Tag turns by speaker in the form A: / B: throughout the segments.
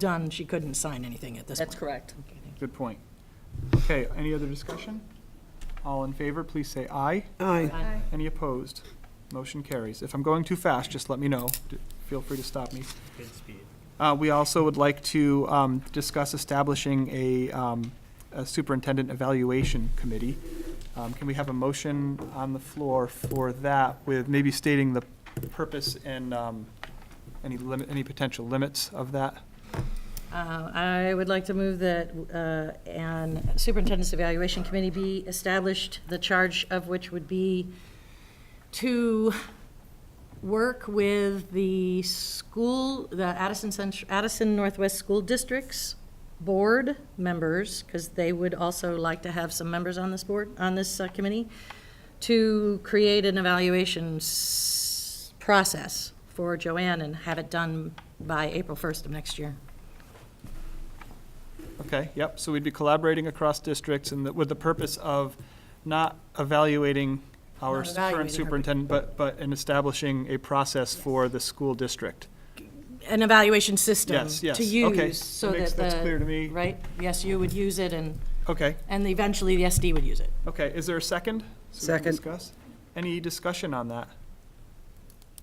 A: done, she couldn't sign anything at this point.
B: That's correct.
C: Good point. Okay, any other discussion? All in favor, please say aye.
D: Aye.
C: Any opposed? Motion carries. If I'm going too fast, just let me know. D- Feel free to stop me. Uh, We also would like to um, discuss establishing a um, a superintendent evaluation committee. Um, Can we have a motion on the floor for that with maybe stating the purpose and um, any limit, any potential limits of that?
B: Uh, I would like to move that uh, an superintendent's evaluation committee be established, the charge of which would be to work with the school, the Addison, Cent- Addison Northwest School District's board members, because they would also like to have some members on this board, on this uh, committee, to create an evaluation s- process for Joanne and have it done by April 1st of next year.
C: Okay, yep, so we'd be collaborating across districts and the- with the purpose of not evaluating our
A: Not
C: s-
A: evaluating her,
C: current
A: but-
C: superintendent, but, but in establishing a process for the school district.
A: An evaluation system.
C: Yes, yes,
A: To
C: okay.
A: use, so
C: That makes-
A: that
C: that's
A: the-
C: clear to me.
A: Right, yes, you would use it, and,
C: Okay,
A: and eventually the SD would use it.
C: okay, is there a second? So we can
D: Second.
C: discuss? Any discussion on that?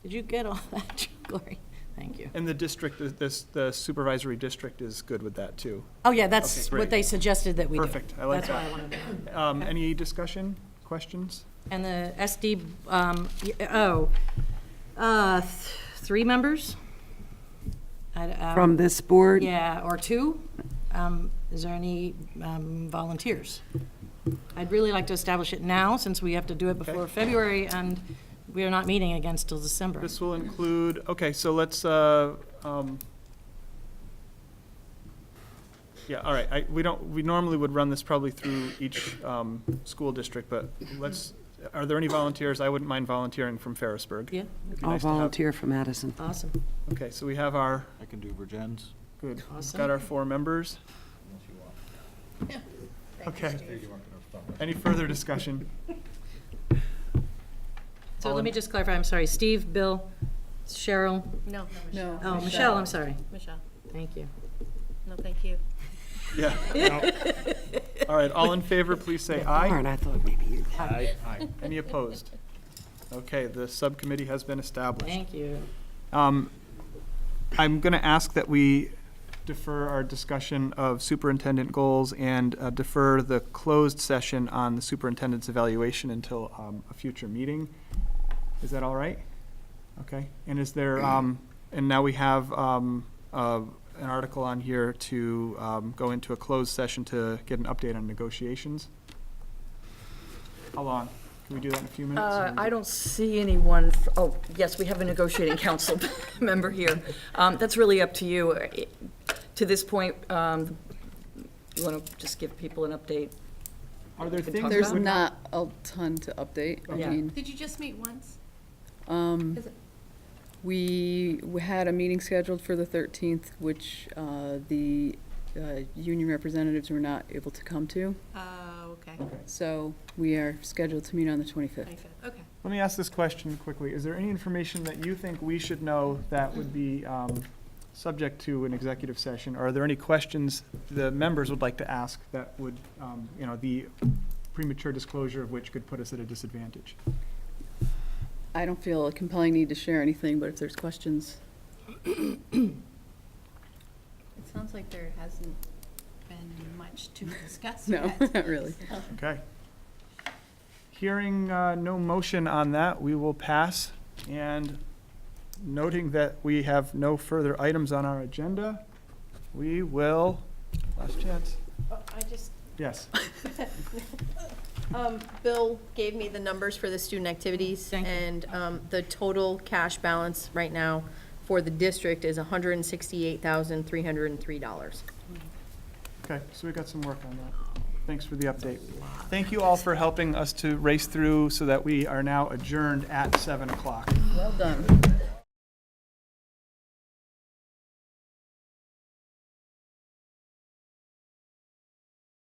A: Did you get all that, Glory? Thank you.
C: And the district, the- this, the supervisory district is good with that, too.
A: Oh, yeah,
C: Okay,
A: that's
C: great.
A: what they suggested that we do.
C: Perfect, I like
A: That's what I
C: that.
A: wanted to do.
C: Um, any discussion, questions?
B: And the SD, um, y- oh, uh, th- three members? I d-
A: uh,
B: um,
D: From this board?
B: Yeah, or two? Um, Is there any um, volunteers? I'd really like to establish it now, since we have to do it before
C: Okay.
B: February, and we are not meeting again till December.
C: This will include, okay, so let's, uh, um, yeah, all right, I, we don't, we normally would run this probably through each um, school district, but let's, are there any volunteers? I wouldn't mind volunteering from Ferrisburg.
B: Yeah,
C: It'd be
D: I'll
C: nice to have-
D: volunteer from Addison.
B: awesome,
C: Okay, so we have our,
E: I can do Virgin's.
C: good, we've
B: Awesome.
C: got our four members. Okay. Any further discussion?
B: So let me just clarify, I'm sorry, Steve, Bill, Cheryl,
F: No, no,
B: oh, Michelle, I'm sorry,
F: Michelle,
B: thank you.
F: no, thank you.
C: Yeah. All right, all in favor, please say aye.
D: Darn, I thought maybe you.
C: Any opposed? Okay, the subcommittee has been established.
B: Thank you.
C: Um, I'm going to ask that we defer our discussion of superintendent goals and uh, defer the closed session on the superintendent's evaluation until um, a future meeting. Is that all right? Okay, and is there, um, and now we have um, uh, an article on here to um, go into a closed session to get an update on negotiations? How long? Can we do that in a few minutes?
B: Uh, I don't see anyone, f- oh, yes, we have a negotiating council member here. Um, That's really up to you. It- To this point, um, you want to just give people an update?
C: Are there things?
G: There's
C: that would-
G: not a ton to update. I
B: Yeah.
G: mean,
F: Did you just meet once?
G: um,
F: Is it-
G: we w- had a meeting scheduled for the thirteenth, which, uh, the, uh, union representatives were not able to come to.
F: Oh, okay.
G: So we are scheduled to meet on the twenty-fifth.
F: Thank you. Okay.
C: Let me ask this question quickly. Is there any information that you think we should know that would be um, subject to an executive session? Or are there any questions the members would like to ask that would, um, you know, the premature disclosure of which could put us at a disadvantage?
G: I don't feel a compelling need to share anything, but if there's questions,
F: It sounds like there hasn't been much to discuss
G: no, not really.
C: Okay. Hearing uh, no motion on that, we will pass. And noting that we have no further items on our agenda, we will, last chance,
F: I just,
C: yes.
F: um, Bill gave me the numbers for the student activities.
B: Thank you.
F: And, um, the total cash balance right now for the district is hundred and sixty-eight thousand, three hundred and three dollars.
C: Okay, so we got some work on that. Thanks for the update. Thank you all for helping us to race through so that we are now adjourned at seven o'clock.
G: Well done.